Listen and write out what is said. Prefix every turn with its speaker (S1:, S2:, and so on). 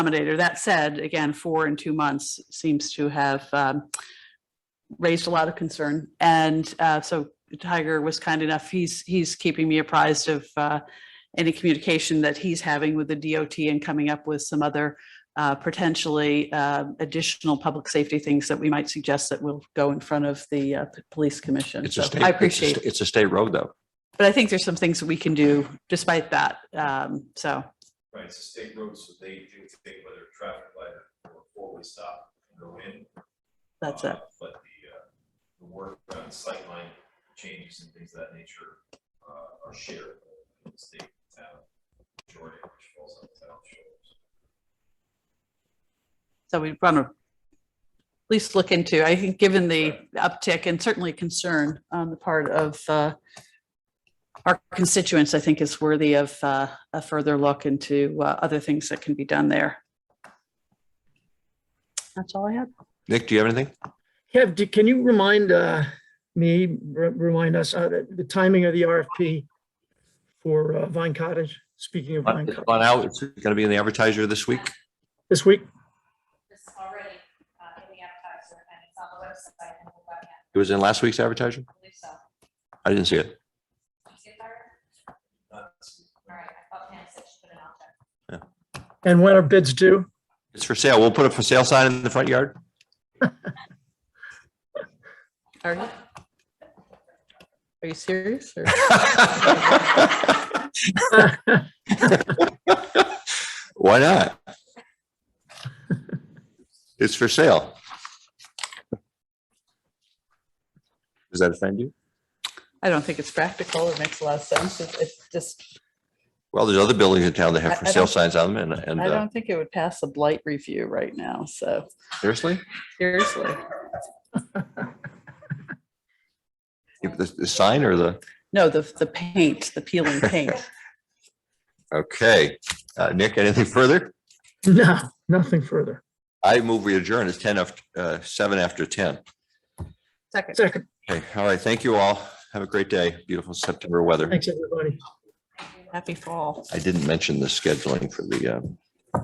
S1: accommodator. That said, again, four and two months seems to have um, raised a lot of concern. And uh, so Tiger was kind enough, he's, he's keeping me apprised of uh, any communication that he's having with the DOT and coming up with some other uh, potentially uh, additional public safety things that we might suggest that will go in front of the uh, p- police commission.
S2: It's a
S1: So
S2: state.
S1: I
S2: it's a
S1: appreciate,
S2: sta- It's a state road, though.
S1: but I think there's some things that we can do despite that. Um, So
S3: Right, it's a state road, so they do think whether a traffic light or four-way stop can go in.
S1: that's
S3: uh,
S1: it.
S3: But the, uh, the work around sightline changes and things of that nature, uh, are shared in the state town. Majority of which falls on the town's shoulders.
S1: So we want to at least look into, I think, given the uptick and certainly concern on the part of uh, our constituents, I think is worthy of uh, a further look into uh, other things that can be done there. That's all I had.
S2: Nick, do you have anything?
S4: Kev, do- can you remind uh, me, re- remind us, uh, the the timing of the RFP for uh, Vine Cottage? Speaking of Vine
S2: It's
S4: Cottage,
S2: gone out. It's going to be in the advertiser this week.
S4: this week?
S5: This is already uh, in the advertiser and it's on the website and the webcam,
S2: It was in last week's advertiser.
S5: I believe so.
S2: I didn't see it.
S5: You see it there?
S3: Not to-
S5: All right, I thought Pam said she put it on there.
S4: And when are bids due?
S2: It's for sale. We'll put a for sale sign in the front yard.
S1: Are you? Are you serious? or-
S2: Why not? It's for sale. Does that offend you?
S1: I don't think it's practical. It makes a lot of sense. It- It's just,
S2: Well, there's other buildings in town that have
S1: I-
S2: for
S1: I
S2: sale
S1: don't-
S2: signs on them and, and
S1: I
S2: uh,
S1: don't think it would pass a blight review right now. So
S2: seriously,
S1: seriously.
S2: If the, the sign or the,
S1: No, the, the paint, the peeling paint.
S2: okay. Uh, Nick, anything further?
S4: No, nothing further.
S2: I move we adjourn. It's ten after, uh, seven after ten.
S1: Second.
S4: Second,
S2: Okay, all right. Thank you all. Have a great day. Beautiful September weather.
S4: thanks, everybody.
S1: Happy fall.
S2: I didn't mention the scheduling for the, uh,